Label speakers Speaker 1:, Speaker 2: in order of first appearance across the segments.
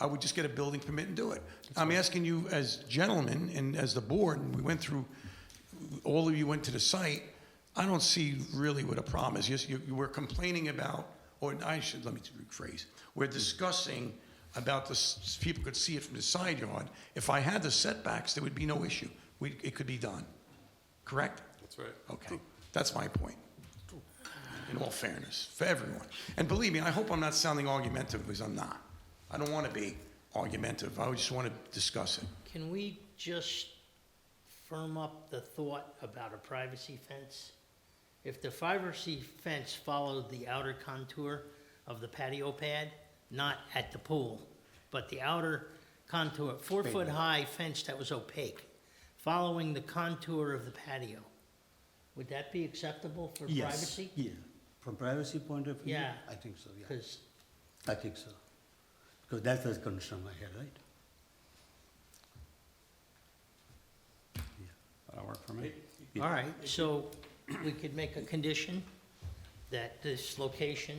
Speaker 1: I would just get a building permit and do it. I'm asking you as gentlemen and as the board, and we went through, all of you went to the site, I don't see really what a problem is. Yes, you, you were complaining about, or I should, let me rephrase, we're discussing about this, people could see it from the side yard. If I had the setbacks, there would be no issue. We, it could be done, correct?
Speaker 2: That's right.
Speaker 1: Okay, that's my point, in all fairness, for everyone. And believe me, I hope I'm not sounding argumentative, because I'm not. I don't want to be argumentative, I just want to discuss it.
Speaker 3: Can we just firm up the thought about a privacy fence? If the privacy fence followed the outer contour of the patio pad, not at the pool, but the outer contour, four-foot-high fence that was opaque, following the contour of the patio, would that be acceptable for
Speaker 4: Yes,
Speaker 3: privacy?
Speaker 4: Yeah, from privacy point of view,
Speaker 3: Yeah.
Speaker 4: I think so, yeah,
Speaker 3: Because
Speaker 4: I think so. Because that's the concern I had, right?
Speaker 5: That'll work for me.
Speaker 3: All right, so we could make a condition that this location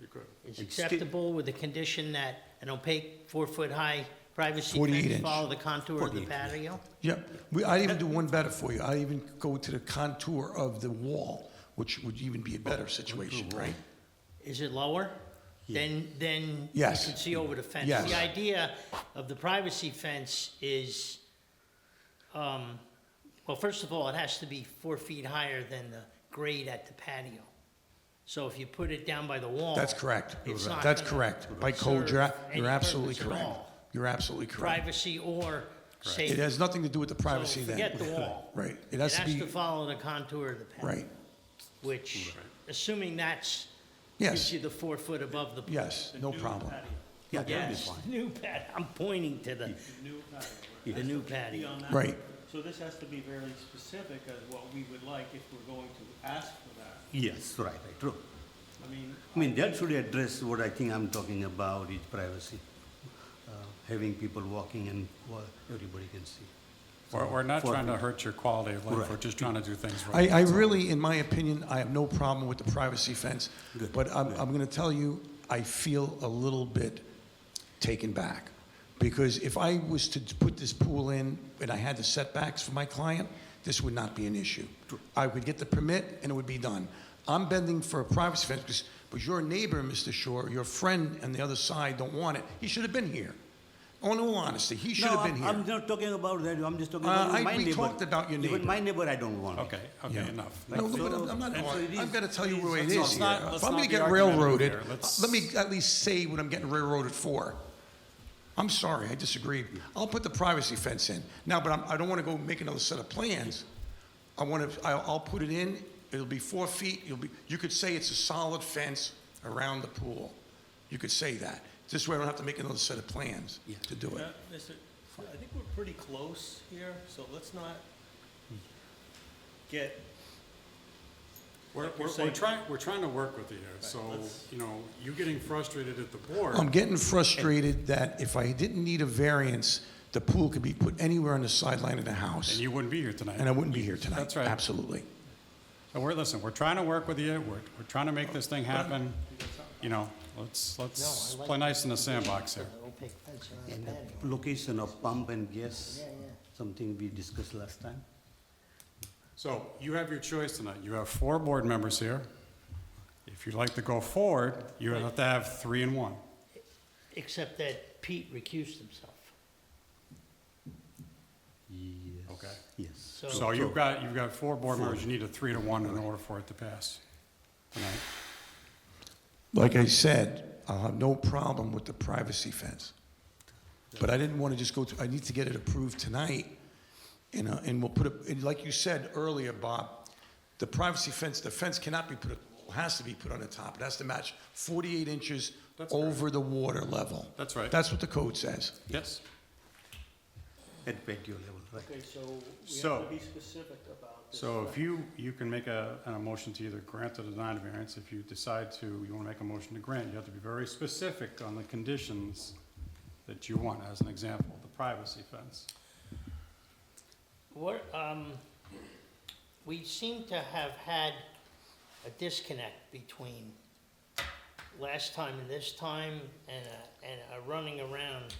Speaker 2: You could.
Speaker 3: is
Speaker 4: And sti-
Speaker 3: acceptable with the condition that an opaque four-foot-high privacy
Speaker 1: 48
Speaker 3: fence
Speaker 1: inch.
Speaker 3: follow the contour of the
Speaker 4: 48, yeah.
Speaker 3: patio?
Speaker 1: Yep, we, I'd even do one better for you, I'd even go to the contour of the wall, which would even be a better situation, right?
Speaker 3: Is it lower? Then, then you
Speaker 1: Yes.
Speaker 3: can see over the fence.
Speaker 1: Yes.
Speaker 3: The idea of the privacy fence is, um, well, first of all, it has to be four feet higher than the grade at the patio. So if you put it down by the wall.
Speaker 1: That's correct,
Speaker 3: it's not
Speaker 1: that's
Speaker 3: gonna
Speaker 1: correct. By code, you're, a-
Speaker 3: serve any
Speaker 1: you're absolutely
Speaker 3: purpose at
Speaker 1: correct.
Speaker 3: all.
Speaker 1: You're absolutely correct.
Speaker 3: privacy or
Speaker 1: It
Speaker 3: safety.
Speaker 1: has nothing to do with the privacy
Speaker 3: So
Speaker 1: then.
Speaker 3: Forget the wall.
Speaker 1: Right, it
Speaker 3: It
Speaker 1: has to
Speaker 3: has
Speaker 1: be,
Speaker 3: to follow the contour of the path.
Speaker 1: right,
Speaker 3: Which, assuming that's,
Speaker 1: yes,
Speaker 3: gives you the four foot above the.
Speaker 1: yes, no problem.
Speaker 4: Yeah, that'll be
Speaker 3: Yes,
Speaker 4: fine.
Speaker 3: new pad, I'm pointing to the,
Speaker 6: New patio.
Speaker 3: The
Speaker 6: That's
Speaker 3: new
Speaker 6: the key
Speaker 3: patio.
Speaker 6: on that.
Speaker 1: Right.
Speaker 6: So this has to be very specific as what we would like if we're going to ask for that.
Speaker 4: Yes, right, right, true.
Speaker 6: I mean,
Speaker 4: I mean, that should address what I think I'm talking about is privacy. Uh, Having people walking and wa- everybody can see.
Speaker 5: We're, we're not
Speaker 4: For-
Speaker 5: trying to hurt your quality of life, we're
Speaker 4: Right.
Speaker 5: just trying to do things right.
Speaker 1: I, I really, in my opinion, I have no problem with the privacy fence,
Speaker 4: Good,
Speaker 1: but I'm,
Speaker 4: good.
Speaker 1: I'm gonna tell you, I feel a little bit taken back. Because if I was to put this pool in and I had the setbacks for my client, this would not be an issue. I would get the permit and it would be done. I'm bending for a privacy fence, because, but your neighbor, Mr. Shore, your friend on the other side don't want it. He should have been here. On all honesty, he should
Speaker 4: No,
Speaker 1: have been
Speaker 4: I'm-
Speaker 1: here.
Speaker 4: I'm not talking about that, I'm just talking
Speaker 1: Uh,
Speaker 4: about
Speaker 1: I-
Speaker 4: my
Speaker 1: we
Speaker 4: neighbor.
Speaker 1: talked about your
Speaker 4: Even
Speaker 1: neighbor.
Speaker 4: my neighbor, I don't want it.
Speaker 5: Okay, okay, enough.
Speaker 1: No,
Speaker 4: Like,
Speaker 1: but
Speaker 4: so-
Speaker 1: I'm- I'm not,
Speaker 4: and so it
Speaker 1: I've
Speaker 4: is-
Speaker 1: got to tell you
Speaker 4: it
Speaker 1: where it
Speaker 4: is-
Speaker 1: is
Speaker 5: Let's
Speaker 1: here.
Speaker 5: not- let's
Speaker 1: If I'm
Speaker 5: not
Speaker 1: going to
Speaker 5: be
Speaker 1: get
Speaker 5: argumentative
Speaker 1: railroaded,
Speaker 5: here. Let's-
Speaker 1: let me at least say what I'm getting railroaded for. I'm sorry, I disagreed. I'll put the privacy fence in. Now, but I'm, I don't want to go make another set of plans. I want to, I'll, I'll put it in, it'll be four feet, you'll be, you could say it's a solid fence around the pool. You could say that. This way I don't have to make another set of plans to do it.
Speaker 6: uh, Mr., I think we're pretty close here, so let's not get,
Speaker 5: We're,
Speaker 6: Like you're
Speaker 5: we're, we're
Speaker 6: saying-
Speaker 5: trying, we're trying to work with you here, so,
Speaker 6: let's-
Speaker 5: you know, you getting frustrated at the board.
Speaker 1: I'm getting frustrated that if I didn't need a variance, the pool could be put anywhere on the sideline of the house.
Speaker 5: And you wouldn't be here tonight.
Speaker 1: and I wouldn't be here tonight.
Speaker 5: That's right.
Speaker 1: Absolutely.
Speaker 5: So we're, listen, we're trying to work with you, we're, we're trying to make this thing happen, you know, let's, let's
Speaker 3: No, I like-
Speaker 5: play nice in the sandbox here.
Speaker 3: opaque fence around
Speaker 4: And
Speaker 3: the patio.
Speaker 4: the location of pump and gas,
Speaker 3: Yeah, yeah.
Speaker 4: something we discussed last time.
Speaker 5: So you have your choice tonight. You have four board members here. If you'd like to go forward, you have to have three and one.
Speaker 3: Except that Pete recused himself.
Speaker 4: Yes.
Speaker 5: Okay.
Speaker 4: Yes.
Speaker 3: So-
Speaker 5: So you've got, you've got four board members. You need a three to one in order for it to pass tonight.
Speaker 1: Like I said, I'll have no problem with the privacy fence. But I didn't want to just go to, I need to get it approved tonight. And, uh, and we'll put, a- and like you said earlier, Bob, the privacy fence, the fence cannot be put, has to be put on the top. It has to match 48 inches
Speaker 5: That's correct.
Speaker 1: over the water level.
Speaker 5: That's right.
Speaker 1: That's what the code says.
Speaker 5: Yes.
Speaker 4: At patio level, right.
Speaker 6: okay, so we have
Speaker 5: So-
Speaker 6: to be specific about this.
Speaker 5: So if you, you can make a, a motion to either grant or deny the variance. If you decide to, you want to make a motion to grant, you have to be very specific on the conditions that you want, as an example, the privacy fence.
Speaker 3: What, um, we seem to have had a disconnect between last time and this time and a, and a running around